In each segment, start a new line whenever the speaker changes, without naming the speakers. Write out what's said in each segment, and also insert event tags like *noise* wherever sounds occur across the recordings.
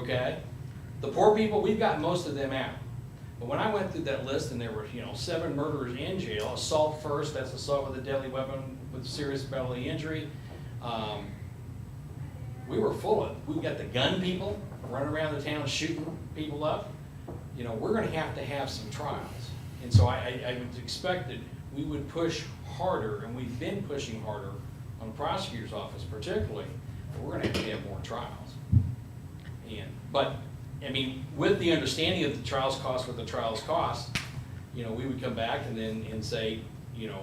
okay? The poor people, we've got most of them out. But when I went through that list and there were, you know, seven murderers in jail, assault first, that's assault with a deadly weapon with serious bodily injury. Um, we were full of, we've got the gun people running around the town shooting people up. You know, we're gonna have to have some trials. And so I, I, I would expect that we would push harder, and we've been pushing harder on the prosecutor's office particularly, but we're gonna have to have more trials. And, but, I mean, with the understanding of the trials cost, what the trials cost, you know, we would come back and then, and say, you know,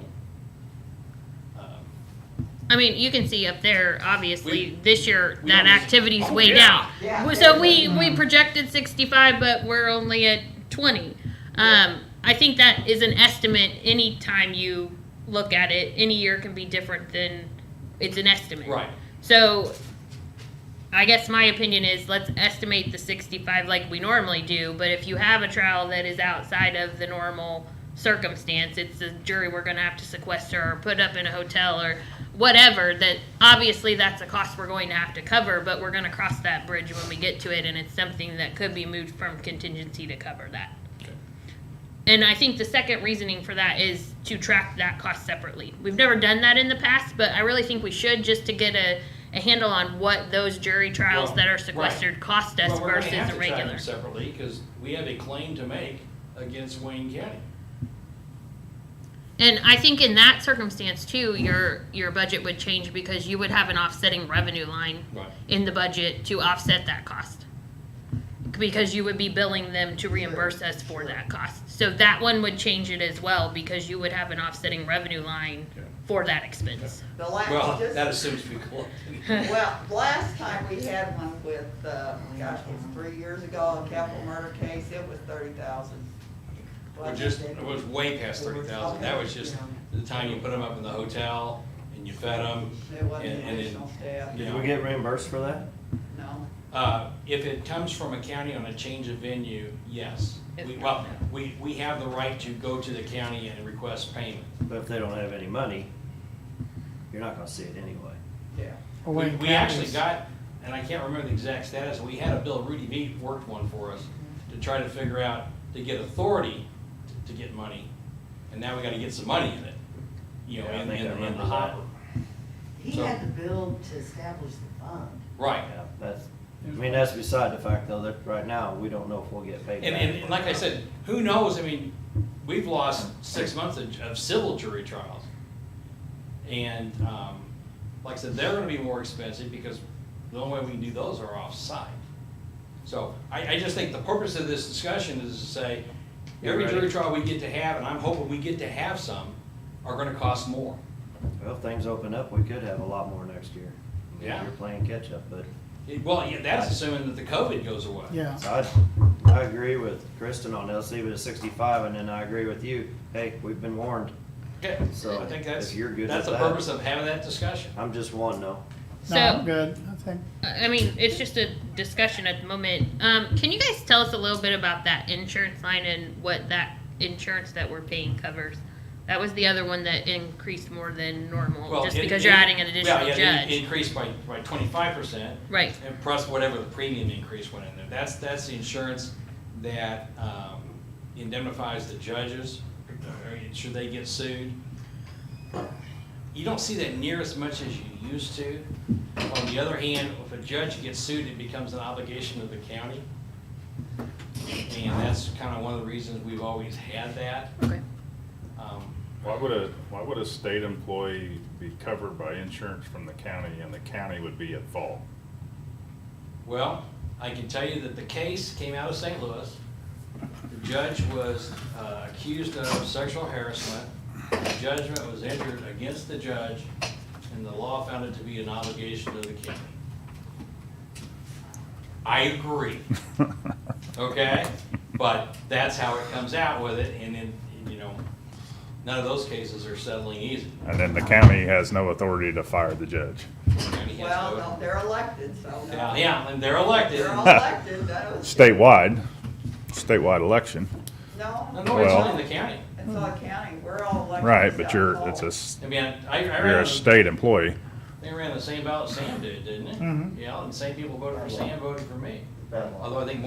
um,
I mean, you can see up there, obviously,
We-
this year
we
that
always-
activity's
Oh,
way
yeah,
down.
yeah.
So we we projected 65, but we're only at 20. Um, I think that is an estimate. Any time you look at it, any year can be different than it's an estimate.
right,
So, I guess my opinion is let's estimate the 65 like we normally do, but if you have a trial that is outside of the normal circumstance, it's a jury we're going to have to sequester or put up in a hotel or whatever, that obviously that's a cost we're going to have to cover, but we're going to cross that bridge when we get to it, and it's something that could be moved from contingency to cover that.
Okay.
And I think the second reasoning for that is to track that cost separately. We've never done that in the past, but I really think we should just to get a, a handle on what those jury trials
Well,
that are
right.
sequestered cost us
Well, we're gonna
versus
have
a
to track
regular.
them separately, because we have a claim to make against Wayne County.
And I think in that circumstance too, your your budget would change because you would have an offsetting revenue line
Right.
in the budget to offset that cost. Because you would be billing them to reimburse us for that cost. So that one would change it as well because you would have an offsetting revenue line
Okay.
for that expense.
The last,
Well, that
just,
assumes we collect. *laughs*
well, the last time we had one with, uh, gosh, it was three years ago, a capital murder case, it was thirty thousand.
We're just, it was way past thirty thousand, that was just the time you put them up in the hotel and you fed them.
It wasn't
and- and it-
additional
Yeah.
staff,
Did we get reimbursed for that?
no.
Uh, if it comes from a county on a change of venue, yes. We, well, we, we have the right to go to the county and request payment.
But if they don't have any money, you're not gonna see it anyway.
Yeah.
Well,
We,
Wayne
we actually
County's-
got, and I can't remember the exact status, we had a bill, Rudy V worked one for us to try to figure out, to get authority to- to get money. And now we gotta get some money in it, you know,
Yeah, I
in,
think I
in in the
remember
hopper.
He
So-
had to build to establish the fund.
Right.
Yeah, that's, I mean, that's beside the fact though, that right now, we don't know if we'll get paid.
And,
back.
and like I said, who knows, I mean, we've lost six months of, of civil jury trials. And, um, like I said, they're gonna be more expensive because the only way we can do those are off-site. So I, I just think the purpose of this discussion is to say, every
Yeah, right.
jury trial we get to have, and I'm hoping we get to have some, are gonna cost more.
Well, if things open up, we could have a lot more next year.
Yeah.
You're playing catch up, but
It- Well, yeah, that's assuming that the COVID goes away.
Yeah,
so I, I agree with Kristen on this, leave it at sixty-five and then I agree with you. Hey, we've been warned.
Okay,
So,
I think
if
that's,
you're good
that's the
with that-
purpose of having that discussion.
I'm just one though.
no, I'm good, I think.
I I mean, it's just a discussion at the moment. Um, can you guys tell us a little bit about that insurance line and what that insurance that we're paying covers? That was the other one that increased more than normal,
Well,
just
it-
because
it-
you're adding an
yeah,
additional
yeah, it
judge,
Increased by, by twenty-five percent,
right?
and plus whatever the premium increase went in there. That's, that's the insurance that um, indemnifies the judges, uh, should they get sued. You don't see that near as much as you used to. On the other hand, if a judge gets sued, it becomes an obligation of the county. And that's kind of one of the reasons we've always had that.
Okay.
Um,
Why would a, why would a state employee be covered by insurance from the county and the county would be at fault?
Well, I can tell you that the case came out of St. Louis. The judge was uh, accused of sexual harassment. The judgment was entered against the judge, and the law found it to be an obligation of the county. I agree, okay? But that's how it comes out with it, and then, you know, none of those cases are settling easy.
And then the county has no authority to fire the judge.
County has to-
Well, no, they're elected, so
Yeah,
no.
Yeah, and they're elected. *laughs*
They're all elected, that was.
Statewide, statewide election,
No,
No,
no, it's
Well-
not in the county.
it's all county, we're all elected.
right,
so-
but you're, it's a, s-
I mean, I, I
you're
ran,
a
the-
state employee. Mm-hmm.
they ran the same ballot Sam did, didn't it? Yeah, and the same people voted for Sam voted for me. Although I think